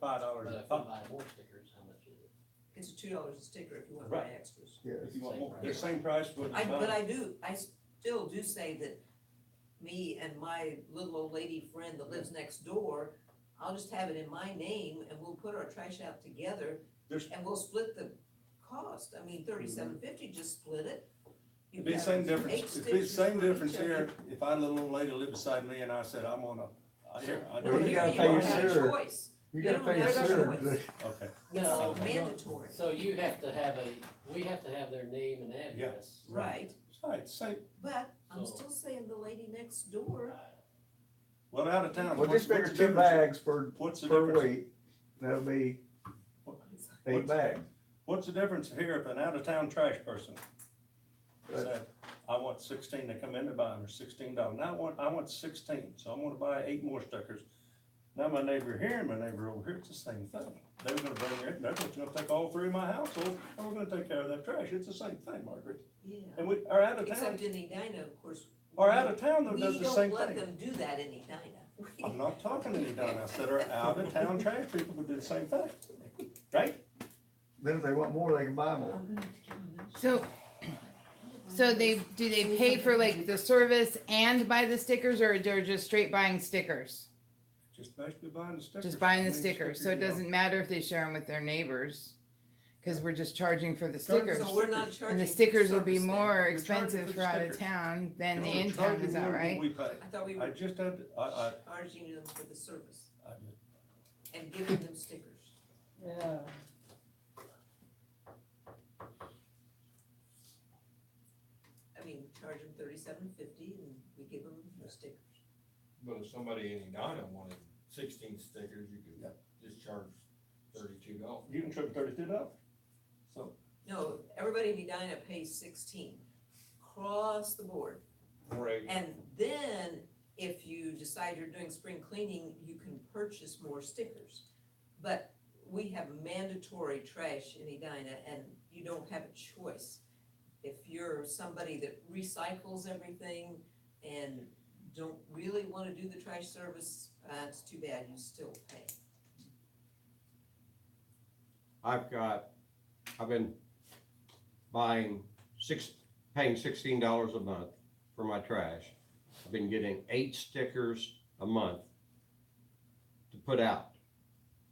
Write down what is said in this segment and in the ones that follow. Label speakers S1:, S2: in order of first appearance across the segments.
S1: five dollars
S2: But
S1: a
S2: if we
S1: pop.
S2: buy more stickers, how much is it?
S3: It's two dollars a sticker if you want to buy extras.
S4: Yes.
S1: If you want
S2: Same
S1: more,
S2: price.
S1: they're same price for the
S3: I, but
S1: five.
S3: I do, I still do say that me and my little old lady friend that lives next door, I'll just have it in my name and we'll put our trash out together
S1: There's-
S3: and we'll split the cost. I mean, thirty-seven fifty, just split it.
S1: It'd
S3: You've
S1: be
S3: got
S1: same
S3: eight
S1: difference, it'd be
S3: stickers
S1: same
S3: for each
S1: difference
S3: of you.
S1: here, if I let a little lady live beside me and I said, I'm on a, I hear, I
S4: Well,
S3: Well,
S4: you
S1: do,
S3: here
S4: gotta
S3: you
S4: pay
S3: don't
S4: your
S3: have a
S4: sewer.
S3: choice.
S4: You gotta
S3: Yeah,
S4: pay your
S3: there's
S4: sewer,
S3: always-
S4: but
S1: okay.
S3: It's
S2: No,
S3: like
S2: no.
S3: mandatory,
S2: So you have to have a, we have to have their name and address.
S3: right?
S1: Right, same,
S3: But I'm
S2: So-
S3: still saying the lady next door,
S1: well, out of town.
S4: well,
S1: what's-
S4: just figure
S1: what's the
S4: two
S1: difference?
S4: bags per,
S1: What's the
S4: per
S1: difference,
S4: week, that'll be
S3: it's like,
S4: eight
S1: What's-
S4: bags.
S1: what's the difference here if an out of town trash person
S4: But-
S1: said, I want sixteen to come in to buy them, or sixteen dollars, now I want, I want sixteen, so I'm gonna buy eight more stickers. Now my neighbor here and my neighbor over here, it's the same thing, they were gonna bring it, they're just gonna take all three of my household, and we're gonna take care of that trash, it's the same thing, Margaret.
S3: yeah.
S1: And we, our out of town,
S3: Except in Edina, of course.
S1: our
S3: we-
S1: out of town though does
S3: We
S1: the same
S3: don't let
S1: thing.
S3: them do that in Edina. We-
S1: I'm not talking to any down, I said our out of town trash people would do the same thing, right?
S4: Then if they want more, they can buy more.
S3: I'm gonna kill them.
S5: So, so they, do they pay for like the service and buy the stickers or they're just straight buying stickers?
S1: Just basically buying the stickers.
S5: Just buying the
S1: I mean,
S5: stickers, so it
S1: you know.
S5: doesn't matter if they share them with their neighbors. Cause we're just charging for the
S1: Charging for
S5: stickers.
S3: So we're not charging.
S5: And the stickers will be
S3: service then.
S5: more
S1: We're charging for
S5: expensive
S1: the
S5: for out
S1: stickers.
S5: of town than the
S1: We're
S5: in town,
S1: charging
S5: is that
S1: more than
S5: right?
S1: We pay,
S3: I thought
S1: I
S3: we
S1: uh,
S3: were
S1: just had, I, I,
S3: charging them for the service
S1: I just-
S3: and giving them stickers.
S6: Yeah.
S3: I mean, charge them thirty-seven fifty and we give them the stickers.
S7: But if somebody in Edina wanted sixteen stickers, you could
S1: Yeah.
S7: just charge thirty-two dollars.
S1: you can trip thirty-two dollars. So,
S3: No, everybody in Edina pays sixteen, across the board.
S7: For a,
S3: And then, if you decide you're doing spring cleaning, you can purchase more stickers. But we have mandatory trash in Edina, and you don't have a choice. If you're somebody that recycles everything and don't really wanna do the trash service, uh, it's too bad, you still pay.
S8: I've got, I've been buying six, paying sixteen dollars a month for my trash. I've been getting eight stickers a month to put out.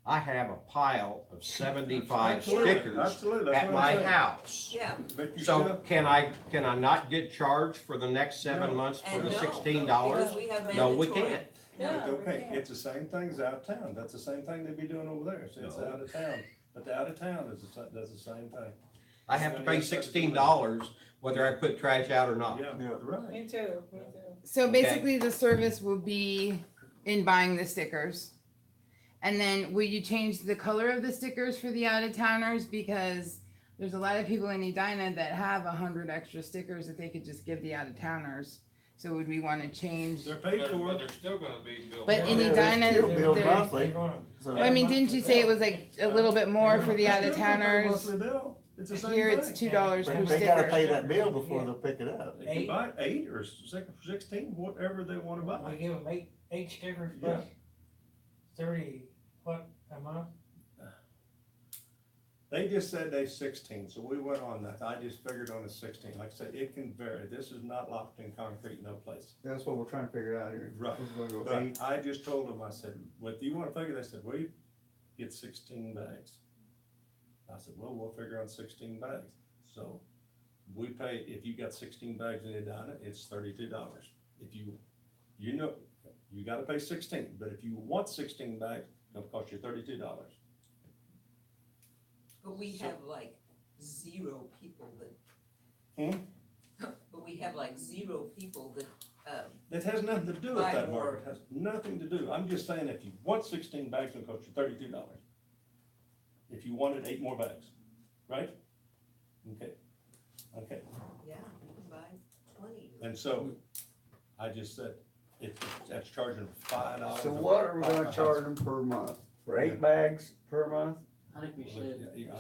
S8: I have a pile of seventy-five
S1: Absolutely,
S8: stickers
S1: Absolutely, that's
S8: at
S1: what
S8: my
S1: I'm saying.
S8: house.
S3: Yeah,
S1: But you
S8: So
S1: still-
S8: can I, can I not get charged for the next
S1: No.
S8: seven months for
S3: And
S8: the
S3: no,
S8: sixteen dollars?
S3: because we have mandatory.
S8: No, we can't.
S6: Yeah,
S1: It's
S6: we
S1: okay,
S6: can.
S1: it's the same things out of town, that's the same thing they'd be doing over there, so it's
S8: No.
S1: out of town, but the out of town is, the sa- does the same thing.
S8: I have to pay sixteen dollars whether I put trash out or not.
S1: Yeah,
S4: Yeah.
S1: right.
S6: Me too, me too.
S5: So
S8: Okay.
S5: basically, the service will be in buying the stickers. And then will you change the color of the stickers for the out of towners? Because there's a lot of people in Edina that have a hundred extra stickers that they could just give the out of towners. So would we want to change?
S1: They're paid
S7: but
S1: for.
S7: but they're still gonna be billed.
S5: But in
S4: Yeah,
S7: monthly.
S5: Edina,
S4: they're still billed
S5: there's-
S4: monthly, so-
S5: Well, I mean, didn't you say it was like a little bit more for the
S1: It's
S5: out of
S1: still gonna be a
S5: towners?
S1: monthly bill. It's the same
S5: Here it's
S1: thing.
S5: two dollars per
S4: But They gotta
S5: sticker.
S4: pay that bill before they'll pick it up.
S1: They can buy eight or six- sixteen, whatever they wanna buy.
S6: We give them eight, eight stickers
S1: Yeah.
S6: plus thirty, what, a month?
S1: They just said they sixteen, so we went on that, I just figured on a sixteen, like I said, it can vary, this is not locked in concrete, no place.
S4: That's what we're trying to figure out here.
S1: Right.
S4: We're gonna go eight,
S1: But I just told them, I said, what do you wanna figure, they said, we get sixteen bags. I said, well, we'll figure on sixteen bags, so we pay, if you got sixteen bags in Edina, it's thirty-two dollars. If you, you know, you gotta pay sixteen, but if you want sixteen bags, it'll cost you thirty-two dollars.
S3: But we have like zero people that.
S1: Hmm?
S3: But we have like zero people that, um,
S1: That has nothing to do with
S3: Buy
S1: that,
S3: more.
S1: Margaret, has nothing to do, I'm just saying, if you want sixteen bags, it'll cost you thirty-two dollars. If you wanted eight more bags, right? Okay, okay,
S3: yeah, you can buy twenty.
S1: and so, I just said, if, that's charging five dollars.
S4: so what are we gonna charge them per month? For eight bags per month?
S2: I think we should.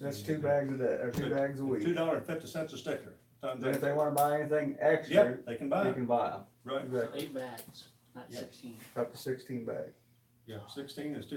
S4: That's two bags a day, or two bags a
S1: Two
S4: week.
S1: dollar and fifty cents a sticker, times
S4: Then if
S1: that,
S4: they wanna buy anything
S1: yeah,
S4: extra,
S1: they can buy
S4: they
S1: it,
S4: can buy them.
S1: right,
S4: Exactly,
S2: Eight bags, not
S1: Yeah.
S2: sixteen.
S4: up to sixteen bags.
S1: yeah, sixteen is two